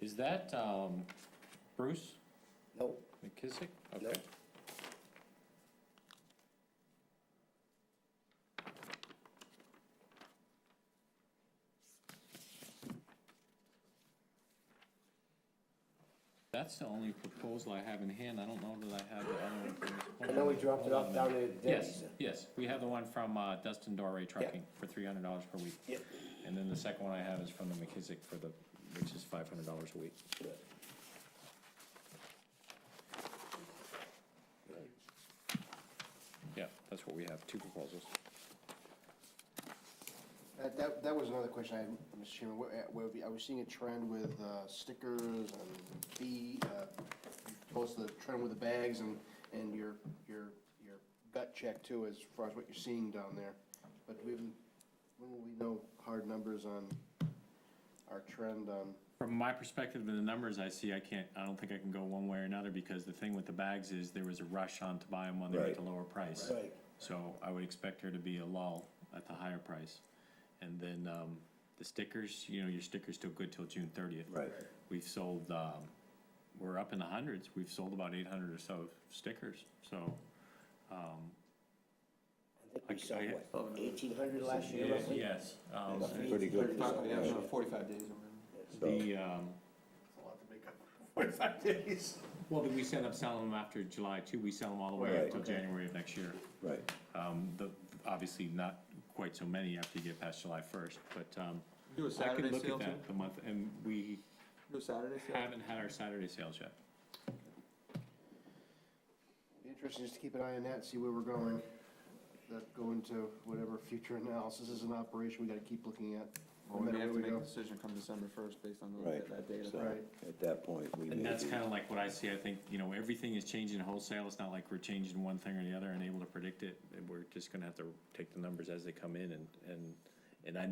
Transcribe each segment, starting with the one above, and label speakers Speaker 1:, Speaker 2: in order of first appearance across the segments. Speaker 1: Is that um, Bruce
Speaker 2: Nope,
Speaker 1: McKissick?
Speaker 2: nope.
Speaker 1: Okay. That's the only proposal I have in hand. I don't know that I have the other one.
Speaker 2: I know we dropped it off down at
Speaker 1: Yes,
Speaker 2: Denny's.
Speaker 1: yes. We have the one from uh, Dustin Doré Trucking for three hundred dollars per week.
Speaker 2: Yep.
Speaker 1: And then the second one I have is from the McKissick for the, which is five hundred dollars a week.
Speaker 2: Uh,
Speaker 1: Yeah, that's what we have, two proposals.
Speaker 2: That, that, that was another question I had, Mr. Chairman, where, where we- I was seeing a trend with uh, stickers and B, uh, both the trend with the bags and, and your, your, your gut check too, as far as what you're seeing down there. But we, haven't- when will we know hard numbers on our trend um? on,
Speaker 1: From my perspective, the numbers I see, I can't, I don't think I can go one way or another, because the thing with the bags is there was a rush on to buy them when they were at the
Speaker 3: Right.
Speaker 1: lower price.
Speaker 3: Right.
Speaker 1: So I would expect there to be a lull at the higher price. And then, um, the stickers, you know, your sticker's still good till June thirtieth.
Speaker 3: Right.
Speaker 1: We've sold, um, we're up in the hundreds, we've sold about eight hundred or so stickers, so,
Speaker 4: I think we
Speaker 1: I-
Speaker 4: saw,
Speaker 1: I-
Speaker 4: what, eighteen hundred last year, roughly?
Speaker 1: yes. Um,
Speaker 4: Roughly
Speaker 3: Pretty
Speaker 4: 1800
Speaker 3: good.
Speaker 5: Talk- yeah, about Forty-five days. or whatever.
Speaker 3: So,
Speaker 1: the, um,
Speaker 2: it's a lot to make up, forty-five days.
Speaker 1: well, we set up selling them after July too, we sell them all the way up
Speaker 3: Right.
Speaker 1: till January of next year.
Speaker 3: right,
Speaker 1: Um, the, obviously not quite so many after you get past July first, but, um,
Speaker 5: Do a
Speaker 1: I could
Speaker 5: Saturday
Speaker 1: look
Speaker 5: sale
Speaker 1: at
Speaker 5: too?
Speaker 1: that the month, and we
Speaker 5: Do a Saturday sale?
Speaker 1: haven't had our Saturday sales yet.
Speaker 2: Be Interesting, just to keep an eye on that, see where we're going. That go into whatever future analysis is an operation we gotta keep looking at. no
Speaker 5: Or we
Speaker 2: matter
Speaker 5: may have to
Speaker 2: where we
Speaker 5: make a
Speaker 2: go.
Speaker 5: decision come December first based on
Speaker 3: right.
Speaker 5: that, that data.
Speaker 3: So,
Speaker 2: Right.
Speaker 3: At that point, we may
Speaker 1: And that's
Speaker 3: be-
Speaker 1: kinda like what I see, I think, you know, everything is changing wholesale, it's not like we're changing one thing or the other and able to predict it. And we're just gonna have to take the numbers as they come in and, and, and I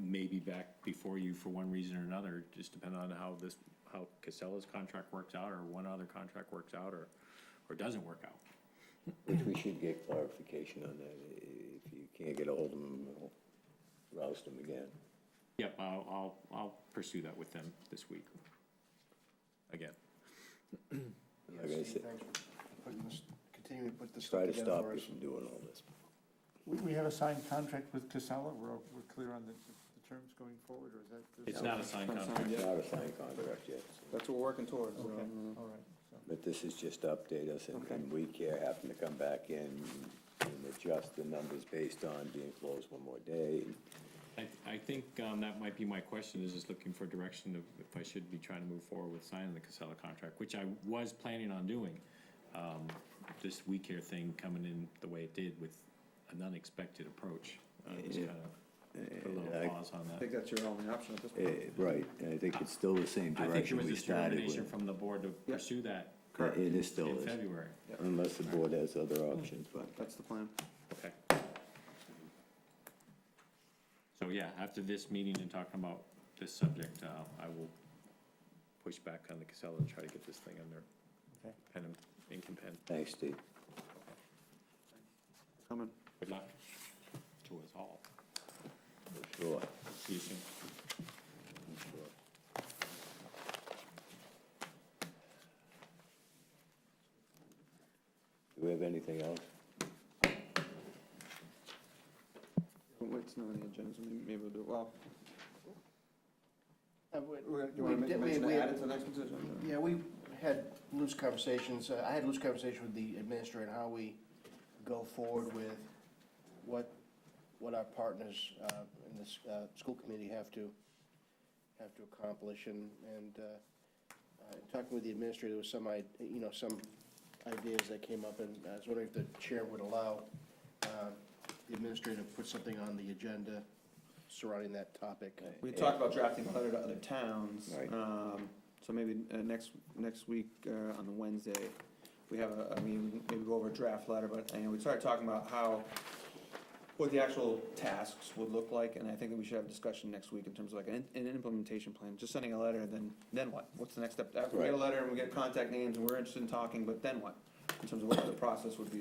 Speaker 1: may be back before you for one reason or another, just depending on how this, how Casella's contract works out, or one other contract works out, or, or doesn't work out.
Speaker 3: Which we should get clarification on that. If you can't get ahold of them, we'll roust them again.
Speaker 1: Yep, I'll, I'll, I'll pursue that with them this week. Again.
Speaker 2: Yeah,
Speaker 3: Like I
Speaker 2: Steve,
Speaker 3: said-
Speaker 2: thanks for putting this, continuing to put this
Speaker 3: Try
Speaker 2: stuff
Speaker 3: to
Speaker 2: together
Speaker 3: stop
Speaker 2: for
Speaker 3: you
Speaker 2: us.
Speaker 3: from doing all this.
Speaker 6: We, we have a signed contract with Casella, we're, we're clear on the, the terms going forward, or is that?
Speaker 1: It's not a signed
Speaker 5: Not
Speaker 1: contract.
Speaker 5: signed yet.
Speaker 3: Not a signed contract yet,
Speaker 5: That's what we're working towards. so,
Speaker 6: Okay,
Speaker 5: mm,
Speaker 6: all right, so,
Speaker 3: but this is just to update us and- and we care, happen to come back in and adjust the numbers based on being closed one more day.
Speaker 1: I, I think, um, that might be my question, is just looking for direction of if I should be trying to move forward with signing the Casella contract, which I was planning on doing. Um, this We Care thing coming in the way it did with an unexpected approach, uh, just kind of put a
Speaker 3: Yeah, I-
Speaker 1: little pause on
Speaker 5: I
Speaker 1: that.
Speaker 5: think that's your only option at this point.
Speaker 3: Eh, Right, and I think it's still the
Speaker 1: I
Speaker 3: same
Speaker 1: think there
Speaker 3: direction
Speaker 1: was
Speaker 3: we
Speaker 1: this
Speaker 3: started
Speaker 1: determination
Speaker 3: with.
Speaker 1: from the board to pursue that
Speaker 5: Correct.
Speaker 3: It is still
Speaker 1: in
Speaker 3: is,
Speaker 1: February.
Speaker 3: unless the board has other
Speaker 1: Mm.
Speaker 3: options, but.
Speaker 5: That's the plan.
Speaker 1: Okay. So yeah, after this meeting and talking about this subject, uh, I will push back on the Casella and try to get this thing under
Speaker 6: okay.
Speaker 1: pen and ink and pen.
Speaker 3: Thanks, Steve.
Speaker 5: Coming.
Speaker 1: Good luck to us all.
Speaker 3: For sure.
Speaker 1: See you soon.
Speaker 3: for sure. Do we have anything else?
Speaker 5: Well, It's not on the agenda, so maybe maybe we'll do, it. well,
Speaker 2: Uh, we-
Speaker 5: do you wanna
Speaker 2: we
Speaker 5: make a
Speaker 2: did- we-
Speaker 5: mention to
Speaker 2: we-
Speaker 5: add it to the next decision?
Speaker 2: Yeah, we had loose conversations, uh, I had loose conversation with the administrator, how we go forward with what, what our partners uh, in this uh, school committee have to, have to accomplish, and, and uh, uh, talking with the administrator, there was some, i- you know, some ideas that came up, and I was wondering if the chair would allow uh, the administrator to put something on the agenda surrounding that topic.
Speaker 5: We talked about drafting a letter to other towns.
Speaker 3: Right.
Speaker 5: Um, so maybe, uh, next, next week, uh, on the Wednesday, we have a, I mean, maybe go over a draft letter, but, and we started talking about how, what the actual tasks would look like, and I think that we should have a discussion next week in terms of like an, an implementation plan, just sending a letter, then, then what? What's the next step? After we get a
Speaker 3: Right.
Speaker 5: letter and we get contact names and we're interested in talking, but then what? In terms of what the process would be